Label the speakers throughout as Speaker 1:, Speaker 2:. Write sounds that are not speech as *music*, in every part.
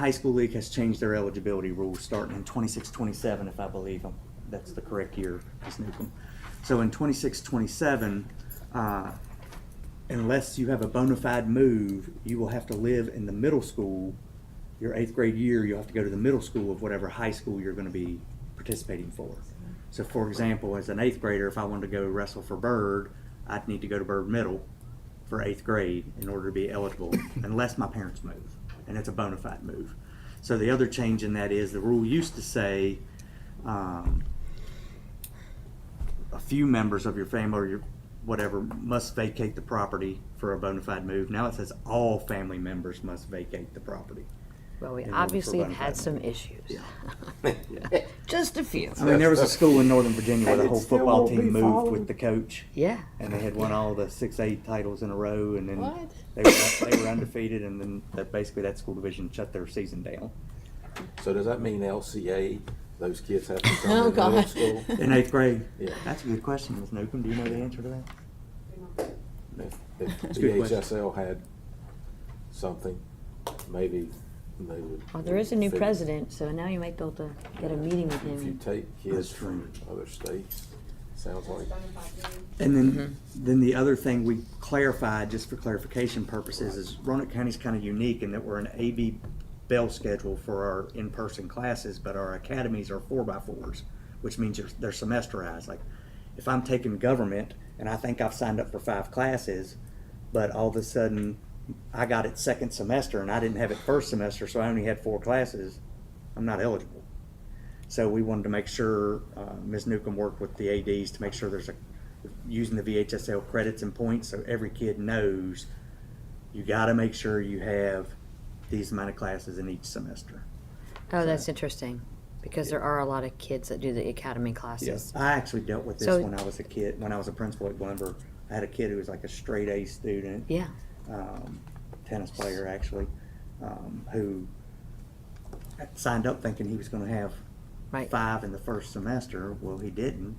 Speaker 1: High School League has changed their eligibility rules starting in 26-27, if I believe them. That's the correct year, Ms. Newcomb. So in 26-27, uh, unless you have a bona fide move, you will have to live in the middle school. Your eighth grade year, you'll have to go to the middle school of whatever high school you're gonna be participating for. So for example, as an eighth grader, if I wanted to go wrestle for Bird, I'd need to go to Bird Middle for eighth grade in order to be
Speaker 2: *laughs*
Speaker 1: eligible, unless my parents move, and it's a bona fide move. So the other change in that is the rule used to say, um, a few members of your family or your whatever must vacate the property for a bona fide move. Now it says all family members must vacate the property.
Speaker 3: Well, we
Speaker 1: in order for
Speaker 3: obviously have
Speaker 1: bona
Speaker 3: had
Speaker 1: fide
Speaker 3: some
Speaker 1: move.
Speaker 3: issues.
Speaker 1: Yeah.
Speaker 3: *laughs* Just a few.
Speaker 1: I mean, there was a school in Northern Virginia where
Speaker 2: And
Speaker 1: the
Speaker 2: it
Speaker 1: whole
Speaker 2: still
Speaker 1: football
Speaker 2: won't
Speaker 1: team
Speaker 2: be
Speaker 1: moved
Speaker 2: followed.
Speaker 1: with the coach,
Speaker 3: Yeah.
Speaker 1: and they had won all the six A titles in a row, and then
Speaker 3: What?
Speaker 1: they were, they were undefeated, and then that basically that school division shut their season down.
Speaker 2: So does that mean LCA, those kids have to
Speaker 3: Oh,
Speaker 2: come to middle
Speaker 3: God. *laughs*
Speaker 2: school?
Speaker 1: In eighth grade?
Speaker 2: Yeah.
Speaker 1: That's a good question, Ms. Newcomb. Do you know the answer to that?
Speaker 2: If if E
Speaker 1: a good question.
Speaker 2: DHSL had something, maybe they would.
Speaker 3: Well, Oh, there is a new
Speaker 2: figure-
Speaker 3: president, so now you might be able to get a meeting with
Speaker 2: If you
Speaker 3: him.
Speaker 2: take
Speaker 1: That's
Speaker 2: kids
Speaker 1: true.
Speaker 2: from other states, sounds like,
Speaker 1: And then, then the other thing we clarified, just for clarification purposes, is Roanoke County's kind of unique in that we're an AB bell schedule for our in-person classes, but our academies are four by fours, which means they're- they're semesterized. Like, if I'm taking government and I think I've signed up for five classes, but all of a sudden I got it second semester and I didn't have it first semester, so I only had four classes, I'm not eligible. So we wanted to make sure, uh, Ms. Newcomb worked with the ADs to make sure there's a, using the VHSL credits and points, so every kid knows you gotta make sure you have these amount of classes in each semester.
Speaker 3: Oh, that's interesting, because there are a lot of kids that do the academy classes.
Speaker 1: I actually dealt with this
Speaker 3: So-
Speaker 1: when I was a kid, when I was a principal at Glenver. I had a kid who was like a straight A student.
Speaker 3: Yeah,
Speaker 1: um, tennis player actually, um, who signed up thinking he was going to have
Speaker 3: Right.
Speaker 1: five in the first semester. Well, he didn't.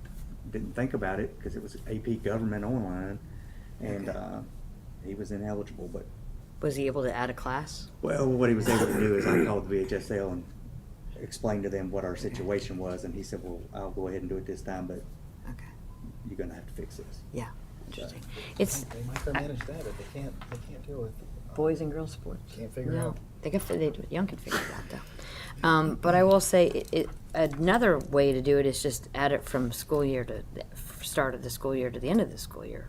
Speaker 1: Didn't think about it because it was AP Government Online, and uh, he was ineligible. But
Speaker 3: was he able to add a class?
Speaker 1: well, what he was able to do is I called the VHSL and explained to them what our situation was, and he said, "Well, I'll go ahead and do it this time, but
Speaker 3: Okay,
Speaker 1: you're going to have to fix this."
Speaker 3: yeah, interesting. It's
Speaker 4: They micromanage that, but they can't, they can't deal with, uh,
Speaker 3: boys and girls sports.
Speaker 4: can't figure
Speaker 3: No,
Speaker 4: out.
Speaker 3: they could, fi- they, Young could figure it out though. Um, but I will say, it, it, another way to do it is just add it from school year to, the f- start of the school year to the end of the school year.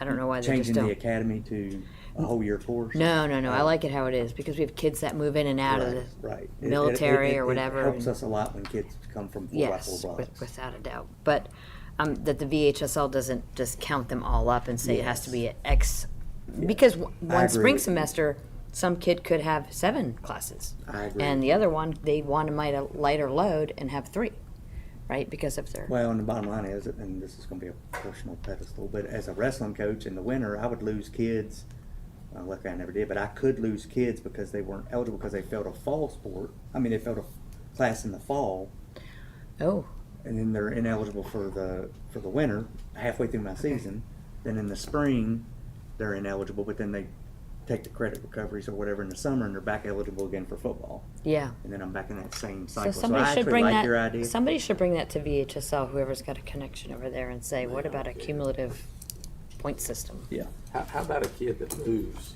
Speaker 3: I don't know why they just
Speaker 1: Changing the
Speaker 3: don't.
Speaker 1: academy to a whole year course.
Speaker 3: No, no, no, I like it how it is, because we have kids that move in and out of
Speaker 1: Right,
Speaker 3: the
Speaker 1: right. It- it-
Speaker 3: military
Speaker 1: it-
Speaker 3: or
Speaker 1: it
Speaker 3: whatever.
Speaker 1: Helps
Speaker 3: and-
Speaker 1: us a lot when kids come from four by
Speaker 3: Yes,
Speaker 1: four
Speaker 3: with-
Speaker 1: blocks.
Speaker 3: without a doubt. But um, that the VHSL doesn't just count them all up and say it has to be at X. Because w-
Speaker 1: I
Speaker 3: one
Speaker 1: agree
Speaker 3: spring
Speaker 1: with you.
Speaker 3: semester, some kid could have seven classes.
Speaker 1: I agree
Speaker 3: And
Speaker 1: with
Speaker 3: the other one, they want to might a lighter load and have three, right? Because if they're,
Speaker 1: Well, and the bottom line is, and this is gonna be a personal pedestal, but as a wrestling coach in the winter, I would lose kids. Uh, luckily I never did, but I could lose kids because they weren't eligible because they failed a fall sport. I mean, they failed a class in the fall
Speaker 3: oh,
Speaker 1: and then they're ineligible for the, for the winter halfway through my season. Then in the spring, they're ineligible, but then they take the credit recoveries or whatever in the summer and they're back eligible again for football.
Speaker 3: yeah.
Speaker 1: and then I'm back in that same
Speaker 3: So
Speaker 1: cycle. So, I
Speaker 3: somebody should
Speaker 1: actually
Speaker 3: bring
Speaker 1: like your idea.
Speaker 3: that, somebody should bring that to VHSL, whoever's got a connection over there and say, what about a cumulative point system?
Speaker 1: yeah.
Speaker 2: how, how about a kid that moves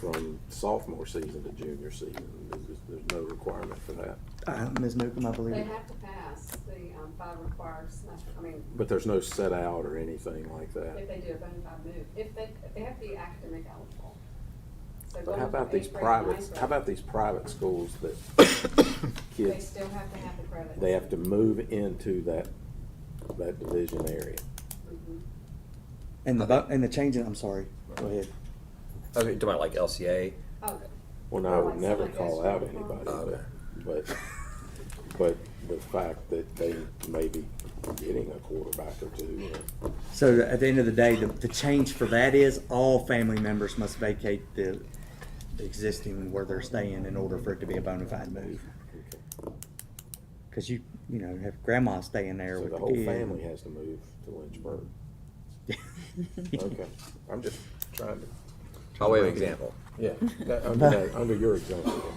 Speaker 2: from sophomore season to junior season? There's, just- there's no requirement for that,
Speaker 1: Uh, Ms. Newcomb, I believe.
Speaker 5: They
Speaker 1: it-
Speaker 5: have to pass the um, five required semester, I mean,
Speaker 2: but there's no set out or anything like
Speaker 5: if
Speaker 2: that.
Speaker 5: they do a bona fide move, if they, they have to be academic eligible. So
Speaker 2: But
Speaker 5: going
Speaker 2: how
Speaker 5: from
Speaker 2: about these
Speaker 5: eighth grade to ninth
Speaker 2: private,
Speaker 5: grade,
Speaker 2: how about these private schools that *coughs*
Speaker 5: They
Speaker 2: kids,
Speaker 5: still have to have the credits.
Speaker 2: they have to move into that, that division area?
Speaker 5: Mm-hmm.
Speaker 1: And the bu- and the change in I'm sorry. Go ahead.
Speaker 6: Okay, talking about like LCA.
Speaker 5: Oh,
Speaker 2: Well, no, I
Speaker 5: Like
Speaker 2: would never
Speaker 5: somebody
Speaker 2: call
Speaker 5: goes
Speaker 2: out
Speaker 5: to the
Speaker 2: anybody,
Speaker 6: prom.
Speaker 2: but, but, but the fact that they may be getting a quarterback or two, or-
Speaker 1: So at the end of the day, the, the change for that is all family members must vacate the the existing where they're staying in order for it to be a bona fide move. Because you you know have grandma staying there
Speaker 2: so
Speaker 1: with
Speaker 2: the whole
Speaker 1: kid.
Speaker 2: family has to move to
Speaker 1: *laughs*
Speaker 2: Lynchburg. Okay, I'm just trying to,
Speaker 6: By way of example.
Speaker 1: *laughs*
Speaker 2: yeah, that- under, that- under your example.